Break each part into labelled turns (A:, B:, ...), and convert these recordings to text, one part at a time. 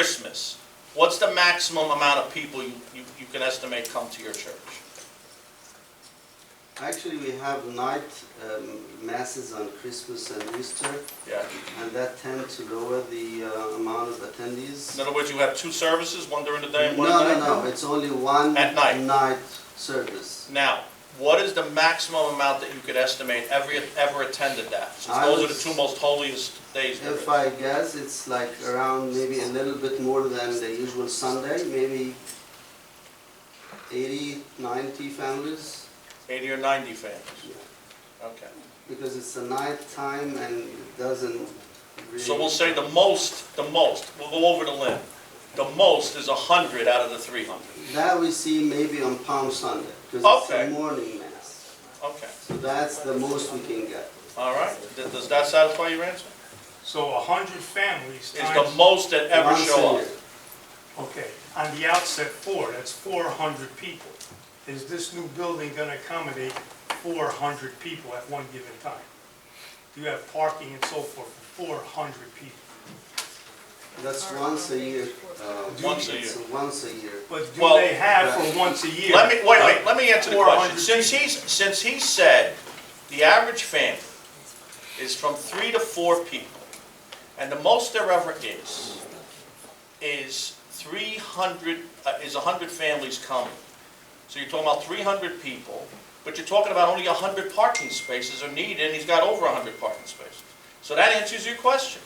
A: Christmas, what's the maximum amount of people you, you you can estimate come to your church?
B: Actually, we have night um, masses on Christmas and Easter,
A: Yeah.
B: and that tend to lower the uh, amount of attendees.
A: In other words, you have two services, one during the day
B: No,
A: and one at night?
B: no, no, it's only one
A: At night.
B: service.
A: Now, what is the maximum amount that you could estimate ever, ever attended that? Since
B: I
A: those are the
B: was-
A: two most holiest days there is.
B: If I guess, it's like around maybe a little bit more than the usual Sunday, maybe 80, 90 families,
A: Eighty or ninety fans?
B: Yeah.
A: Okay.
B: because it's a night time and it doesn't really...
A: So we'll say the most, the most, we'll go over the limb. The most is hundred out of the three hundred.
B: That we see maybe on Palm Sunday, because it's
A: Okay.
B: a morning mass.
A: Okay,
B: So that's the most we can get.
A: all right. Th- Does that satisfy your answer?
C: So a hundred families
A: Is the
C: times,
A: most that ever
B: Once a
A: show up?
B: year.
C: okay, on the outset, four, that's four hundred people. Is this new building gonna accommodate four hundred people at one given time? Do you have parking and so forth for four hundred people?
B: That's once a year. uh,
A: Once a
B: It's
A: year.
B: once a year.
C: But do
A: Well-
C: they have for once a year?
A: Let me, wait, wait, let me answer the question.
C: 400
A: Since he's, since he said the average family is from three to four people, and the most there ever is, is three hundred, uh, is a hundred families coming. So you're talking about three hundred people, but you're talking about only a hundred parking spaces are needed, and he's got over a hundred parking spaces. So that answers your question.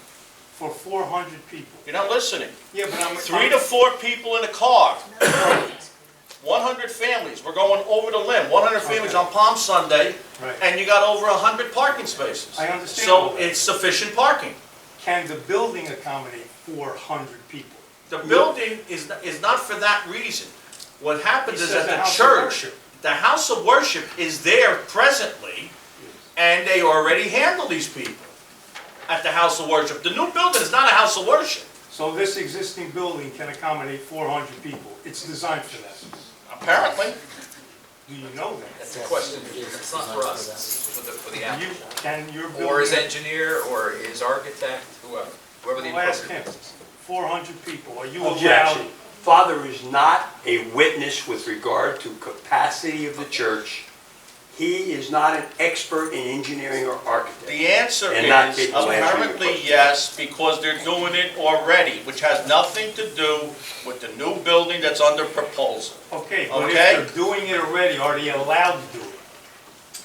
C: For four hundred people.
A: You're not listening.
C: Yeah, but I'm.
A: Three to four people in a car. 100 families, we're going over the limb, 100 families on Palm Sunday,
C: Right.
A: and you got over 100 parking spaces.
C: I understand all
A: So
C: that.
A: it's sufficient parking.
C: Can the building accommodate four hundred people?
A: The building is, is not for that reason. What happens
C: He
A: is
C: says
A: that the
C: the house of
A: church,
C: worship.
A: the house of worship is there presently, and they already handle these people at the house of worship. The new building is not a house of worship.
C: So this existing building can accommodate four hundred people. It's designed for that.
A: Apparently,
C: Do you know that?
D: That's a question, it's not for us, it's for the, for the
C: You,
D: applicant.
C: can your building...
D: Or his engineer, or his architect, whoever, whoever the
C: Well, ask him,
D: appropriate.
C: four hundred people, are you
E: Objection.
C: allowed?
E: Father is not a witness with regard to capacity of the church. He is not an expert in engineering or architecture.
A: The answer
E: And not
A: is
E: people answering your
A: apparently
E: question.
A: yes, because they're doing it already, which has nothing to do with the new building that's under proposal.
C: Okay, but if
A: Okay.
C: they're doing it already, are they allowed to do it?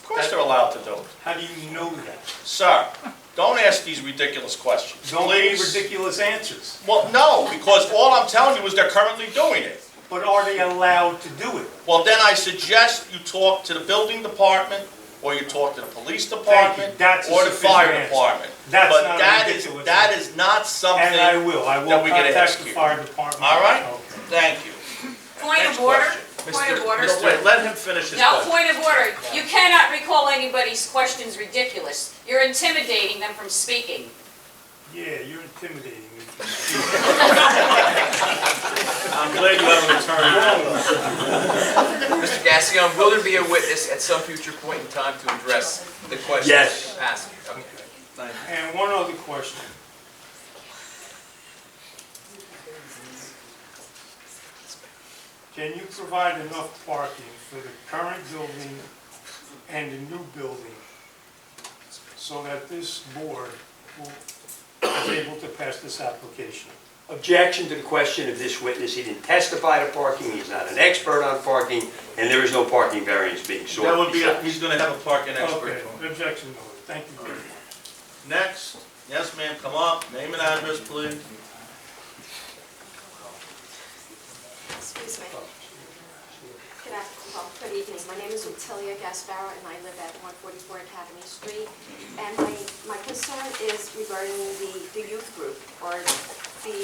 A: Of course they're allowed to do it.
C: How do you know that?
A: Sir, don't ask these ridiculous questions,
C: Don't give
A: please.
C: ridiculous answers,
A: Well, no, because all I'm telling you is they're currently doing it.
C: but are they allowed to do it?
A: Well, then I suggest you talk to the building department, or you talk to the police
C: you.
A: department,
C: That's a
A: or the
C: sufficient
A: fire
C: answer.
A: department.
C: That's
A: But
C: not a
A: that is-
C: ridiculous
A: That
C: answer.
A: is not something,
C: And I will, I will
A: Then we get to ask
C: contact the
A: you.
C: fire department.
A: all right?
C: Okay.
A: Thank you.
F: Point
A: Next
F: of order,
A: question.
F: point of
A: Mr.
F: order.
A: Mr. Wait, let him finish his
F: No,
A: question.
F: point of order. You cannot recall anybody's questions ridiculous. You're intimidating them from speaking.
C: Yeah, you're intimidating me.
A: I'm glad you have an attorney.
D: Mr. Gassion, um, will there be a witness at some future point in time to address the question?
E: Yes.
D: Ask, okay.
C: And one other question. Can you provide enough parking for the current building and the new building so that this board will is able to pass this application?
E: Objection to the question of this witness. He didn't testify to parking. He's not an expert on parking, and there is no parking variance being sought.
A: That would be, a-
E: besides.
A: he's gonna have a parking
C: Okay,
A: expert.
C: objection noted, thank you very much.
A: Next, yes ma'am, come up, name and address, please.
G: Excuse me. Good afternoon, well, good evening. My name is Utilia Gasparo, and I live at 144 Academy Street. And my, my concern is regarding the, the youth group, or the,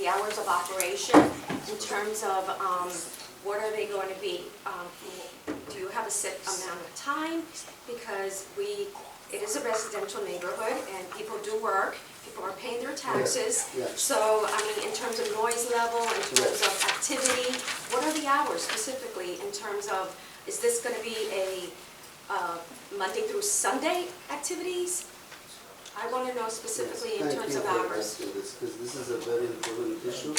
G: the hours of operation in terms of, um, what are they going to be? Um, Do you have a set amount of time? Because we, it is a residential neighborhood, and people do work, people are paying their taxes.
B: Yeah, yeah.
G: So, I mean, in terms of noise level, in terms
B: Yes.
G: of activity, what are the hours specifically in terms of, is this going to be a uh, Monday through Sunday activities? I want to know
B: Yes,
G: specifically in
B: thank
G: terms
B: you
G: of
B: for
G: hours.
B: asking this, 'cause this is a very important issue.